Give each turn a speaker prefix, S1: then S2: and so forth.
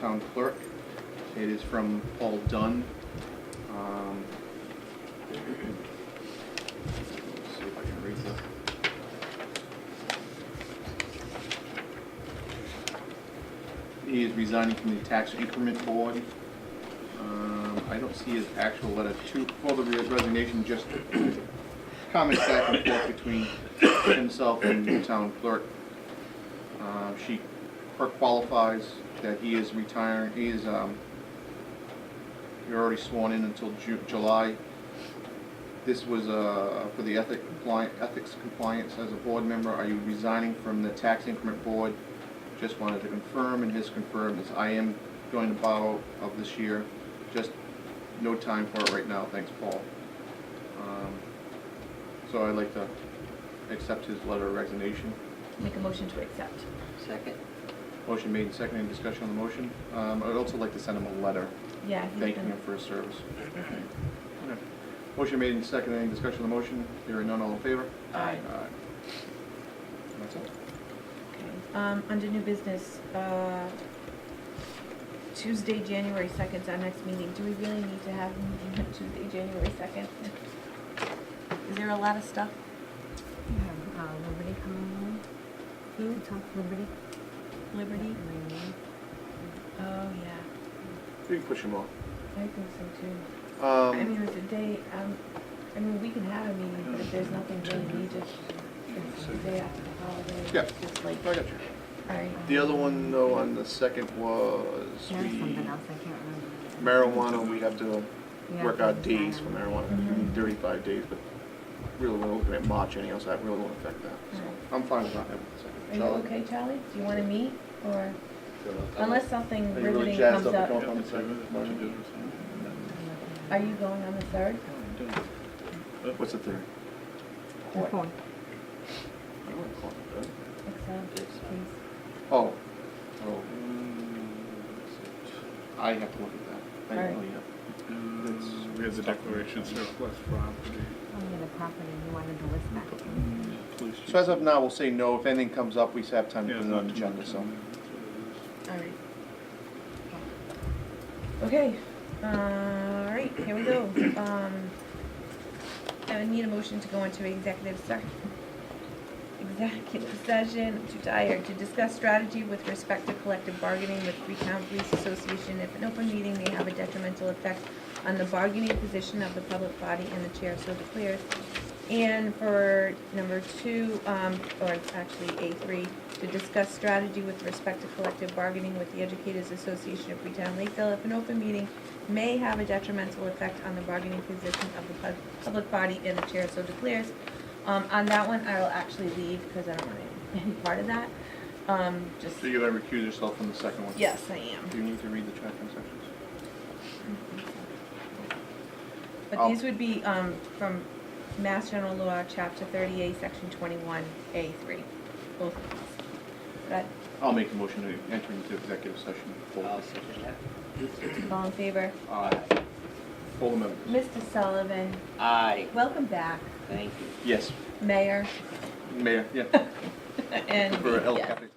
S1: town clerk. It is from Paul Dunn. Um, let's See if I can read the. He is resigning from the tax increment board. Um, I don't see his actual letter to, well, the resignation just comments back and forth between himself and the town clerk. Um, She, her qualifies that he is retiring, he is, um, you're already sworn in until Ju- July. This was, uh, for the ethic compliant, ethics compliance as a board member, are you resigning from the tax increment board? Just wanted to confirm, and his confirm is I am going to bow of this year, just no time for it right now, thanks, Paul. Um, So I'd like to accept his letter of resignation.
S2: Make a motion to accept.
S3: Second.
S1: Motion made and seconded, Any discussion on the motion. Um, I'd also like to send him a letter
S2: Yeah. he's
S1: thanking
S2: been-
S1: him for his service. Okay. Motion made and seconded, any discussion on the motion? Hearing none, all in favor?
S2: Aye.
S1: That's it.
S2: Okay. Um, under new business, uh, Tuesday, January second's our next meeting. Do we really need to have a meeting on Tuesday, January second? Is there a lot of stuff?
S4: You have uh, Liberty coming in. You talk Liberty.
S2: Liberty?
S4: Coming in.
S2: Oh, yeah.
S1: You can push him off.
S2: I think so too. I
S1: Um,
S2: mean, it's a day, um, I mean, we can have a meeting, but if there's nothing really needed, it's the day after the holiday.
S1: Yeah.
S2: It's just like, uh-huh.
S1: I got you.
S2: all right.
S1: The other one, though, on the second was
S4: There was
S1: we,
S4: something else I can't remember.
S1: marijuana, we have to
S4: Yeah,
S1: work out
S4: that's
S1: days for
S4: fine.
S1: marijuana, I mean, thirty-five days, but really, we're looking at March anyhow, so that really won't affect that, so. I'm fine with not having the second.
S2: Are you
S1: Charlie? Uh,
S2: okay, Charlie? Do you wanna meet, or,
S1: Are
S2: unless something
S1: you really
S2: riveting
S1: jazzed
S2: comes
S1: up to
S2: up,
S1: come on the second?
S2: are you going on the third?
S1: What's the third?
S4: The fourth.
S1: I wouldn't call it the third.
S2: Excellent, please.
S1: Oh, oh. I have to look at that. I
S2: Alright.
S1: don't know yet.
S5: We have the declaration surplus property.
S4: Oh, yeah, the property. You wanted to list that.
S1: So as of now, we'll say no. If anything comes up, we still have time to
S5: Yeah,
S1: put
S5: it's
S1: it on
S5: not
S1: the
S5: too
S1: agenda,
S5: much
S1: so.
S5: on there, that's what
S2: All
S5: it is.
S2: right. Okay, all right, here we go. Um, I would need a motion to go into executive session. Executive session, I'm too tired, to discuss strategy with respect to collective bargaining with Freetown Police Association. If an open meeting may have a detrimental effect on the bargaining position of the public body and the chair so declares. And for number two, um, or actually A three, to discuss strategy with respect to collective bargaining with the Educators Association of Freetown Lakeville. If an open meeting may have a detrimental effect on the bargaining position of the pub- public body and the chair so declares. Um, on that one, I will actually leave because I don't want any part of that. Um, just,
S1: So you're gonna recuse yourself from the second one?
S2: yes, I am.
S1: Do you need to read the tracking sections?
S2: But
S1: I'll-
S2: these would be, um, from Mass General Law, Chapter thirty-eight, Section twenty-one, A three, both of these. But,
S1: I'll make the motion to enter into executive session. for-
S3: I'll second that.
S2: all in favor?
S1: Aye. All the members?
S2: Mr. Sullivan,
S3: Aye,
S2: welcome back,
S3: thank you.
S1: Yes.
S2: Mayor,
S1: Mayor, yeah.
S2: and,
S1: For El
S2: yes.
S1: Capitan.